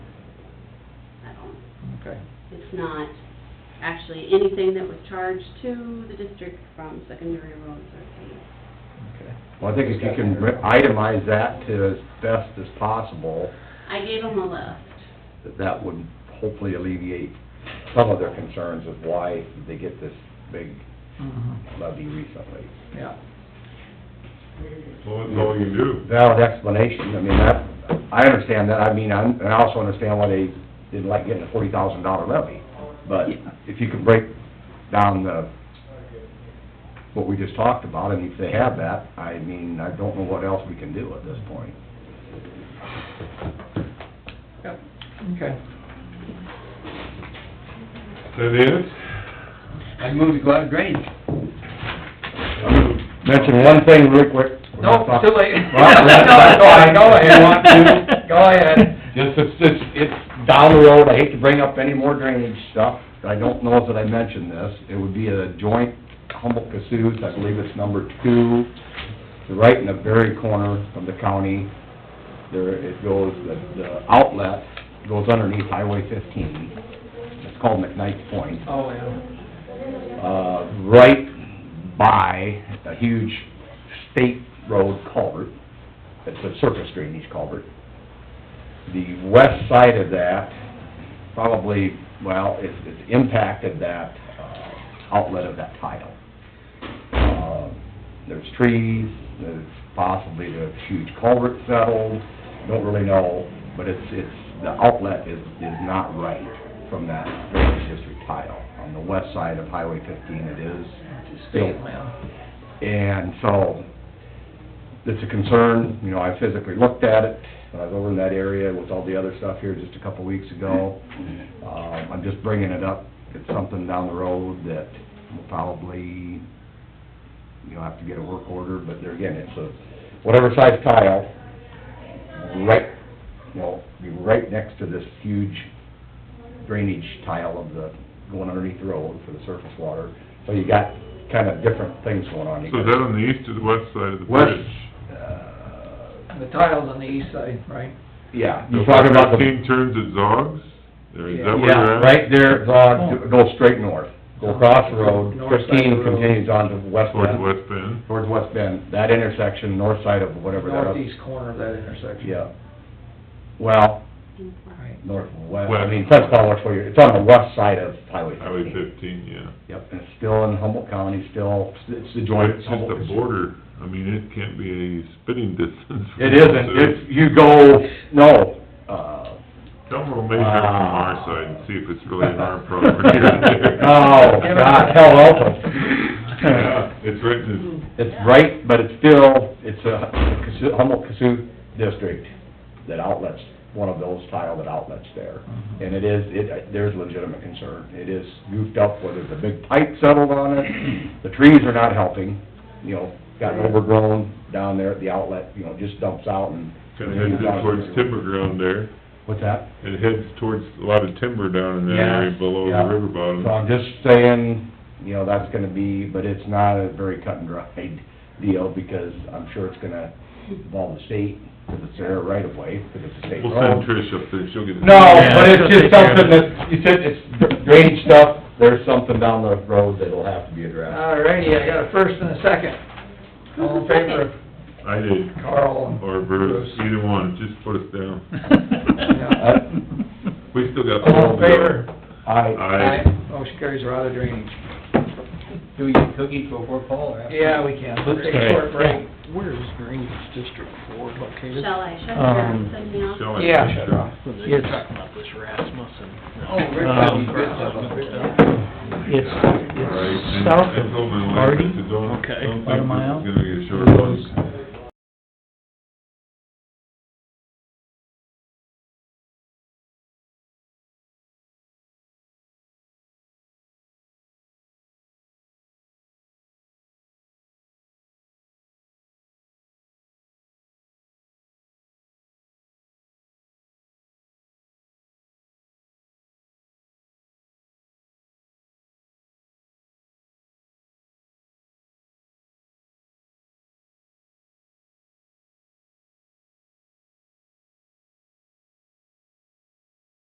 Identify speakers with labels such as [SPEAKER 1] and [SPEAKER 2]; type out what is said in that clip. [SPEAKER 1] Okay.
[SPEAKER 2] It's not actually anything that was charged to the district from secondary roads or things.
[SPEAKER 1] Okay.
[SPEAKER 3] Well, I think if you can re- itemize that to as best as possible,
[SPEAKER 2] I gave them a list.
[SPEAKER 3] that that would hopefully alleviate some of their concerns of why they get this big
[SPEAKER 1] Mhm.
[SPEAKER 3] levy recently.
[SPEAKER 1] Yeah.
[SPEAKER 4] Well, that's all you can do.
[SPEAKER 3] Valid explanation, I mean, that, I understand that, I mean, I'm- and I also understand why they didn't like getting a forty thousand dollar levy, but if you could break down the, what we just talked about, and if they have that, I mean, I don't know what else we can do at this point.
[SPEAKER 1] Yep. Okay.
[SPEAKER 4] Is that it?
[SPEAKER 5] I move to go out of drainage.
[SPEAKER 3] Mention one thing real quick. We're not
[SPEAKER 1] Nope,
[SPEAKER 3] talk-
[SPEAKER 1] too late.
[SPEAKER 3] Well, that's- that's fine.
[SPEAKER 1] Go ahead.
[SPEAKER 3] You want to?
[SPEAKER 1] Go ahead.
[SPEAKER 3] Just, it's, it's, it's down the road, I hate to bring up any more drainage stuff, I don't know that I mentioned this, it would be a joint Humboldt-Cassuth, I believe it's number two, right in the very corner of the county, there, it goes, the, the outlet goes underneath Highway fifteen, it's called McKnight's Point
[SPEAKER 1] Oh, yeah.
[SPEAKER 3] uh, right by a huge state road culvert. It's a surface drainage culvert. The west side of that, probably, well, it's, it's impacted that uh, outlet of that tile. Uh, There's trees, there's possibly the huge culvert settled, don't really know, but it's, it's, the outlet is, is not right from that drainage district tile. On the west side of Highway fifteen, it is still
[SPEAKER 1] State land.
[SPEAKER 3] and so, it's a concern, you know, I physically looked at it, when I was over in that area with all the other stuff here just a couple weeks ago. Um, I'm just bringing it up, it's something down the road that will probably, you know, have to get a work order, but there again, it's a, whatever size tile, right, you know, be right next to this huge drainage tile of the, going underneath the road for the surface water. So you got kind of different things going on. You
[SPEAKER 4] So is
[SPEAKER 3] got-
[SPEAKER 4] that on the east or the west side of the
[SPEAKER 3] West.
[SPEAKER 4] bridge?
[SPEAKER 3] uh,
[SPEAKER 1] The tile's on the east side, right?
[SPEAKER 3] Yeah, you're talking about the,
[SPEAKER 4] Fifteen turns at Zogs? Or is that where
[SPEAKER 3] yeah,
[SPEAKER 4] you're at?
[SPEAKER 3] right there, go, go straight north, go across the road,
[SPEAKER 1] North Oh. side of the
[SPEAKER 3] fifteen
[SPEAKER 1] road.
[SPEAKER 3] continues on to West
[SPEAKER 4] Towards
[SPEAKER 3] Bend,
[SPEAKER 4] West Bend?
[SPEAKER 3] towards West Bend, that intersection, north side of whatever that
[SPEAKER 1] Northeast
[SPEAKER 3] is.
[SPEAKER 1] corner of that intersection.
[SPEAKER 3] Yeah. Well,
[SPEAKER 1] Right.
[SPEAKER 3] northwest, I mean,
[SPEAKER 4] West.
[SPEAKER 3] that's not much for you, it's on the west side of Highway
[SPEAKER 4] Highway
[SPEAKER 3] fifteen.
[SPEAKER 4] fifteen, yeah.
[SPEAKER 3] Yep, and it's still in Humboldt County, still, it's the joint.
[SPEAKER 4] It's just a
[SPEAKER 3] Humboldt-
[SPEAKER 4] border, I mean, it can't be a spitting distance. from
[SPEAKER 3] It
[SPEAKER 4] those
[SPEAKER 3] isn't,
[SPEAKER 4] two.
[SPEAKER 3] if you go, no, uh,
[SPEAKER 4] Tell them we'll measure it from our
[SPEAKER 3] Wow.
[SPEAKER 4] side and see if it's really an arm problem or here.
[SPEAKER 3] Oh, God, hell also.
[SPEAKER 4] Yeah, it's right in
[SPEAKER 3] It's right, but it's still, it's a Cassu- Humboldt Cassuth district that outlets, one of those tile that outlets there. And it is, it, there's legitimate concern. It is goofed up, whether the big pipe settled on it, the trees are not helping, you know, gotten overgrown down there at the outlet, you know, just dumps out and.
[SPEAKER 4] this, kind of heads it towards timber ground there.
[SPEAKER 3] What's that?
[SPEAKER 4] It heads towards a lot of timber down in that
[SPEAKER 3] Yeah,
[SPEAKER 4] area below
[SPEAKER 3] yeah.
[SPEAKER 4] the river bottom.
[SPEAKER 3] So I'm just saying, you know, that's gonna be, but it's not a very cut and dried deal, because I'm sure it's gonna involve the state, because it's their right of way, because it's a state
[SPEAKER 4] We'll send
[SPEAKER 3] road.
[SPEAKER 4] Trish up there, she'll get.
[SPEAKER 3] No,
[SPEAKER 1] Yeah,
[SPEAKER 3] but it's
[SPEAKER 1] she'll take
[SPEAKER 3] just
[SPEAKER 1] care of
[SPEAKER 3] something
[SPEAKER 1] it.
[SPEAKER 3] that, you said it's drainage stuff, there's something down the road that'll have to be addressed.
[SPEAKER 1] Mm-hmm. All righty, I got a first and a second. All in favor,
[SPEAKER 4] I did,
[SPEAKER 1] Carl?
[SPEAKER 4] or Bruce, either one, just put us down. We still got.
[SPEAKER 1] All in favor?
[SPEAKER 5] Uh,
[SPEAKER 3] I,
[SPEAKER 4] Aye.
[SPEAKER 1] Motion carries, we're out of drainage.
[SPEAKER 5] Do we get cookies before Paul or after?
[SPEAKER 1] Yeah, we can. Let's take a
[SPEAKER 4] Okay.
[SPEAKER 1] short break.
[SPEAKER 6] Where is Drainage District Four located?
[SPEAKER 2] Shall I shut it down, and send me off?
[SPEAKER 4] Shall I?
[SPEAKER 1] Yeah.
[SPEAKER 3] shut it off.
[SPEAKER 6] You're talking about this Rasmussen. Um,
[SPEAKER 5] Oh, Rick, that'd be good stuff up there.
[SPEAKER 6] It's,
[SPEAKER 4] All right,
[SPEAKER 6] it's
[SPEAKER 4] and
[SPEAKER 6] south
[SPEAKER 4] I told my
[SPEAKER 6] of
[SPEAKER 4] wife, I
[SPEAKER 6] Marty.
[SPEAKER 4] said, don't-
[SPEAKER 6] Okay,
[SPEAKER 4] don't think
[SPEAKER 6] about a
[SPEAKER 4] this
[SPEAKER 6] mile.
[SPEAKER 4] is gonna be a short
[SPEAKER 6] Goes,
[SPEAKER 4] one.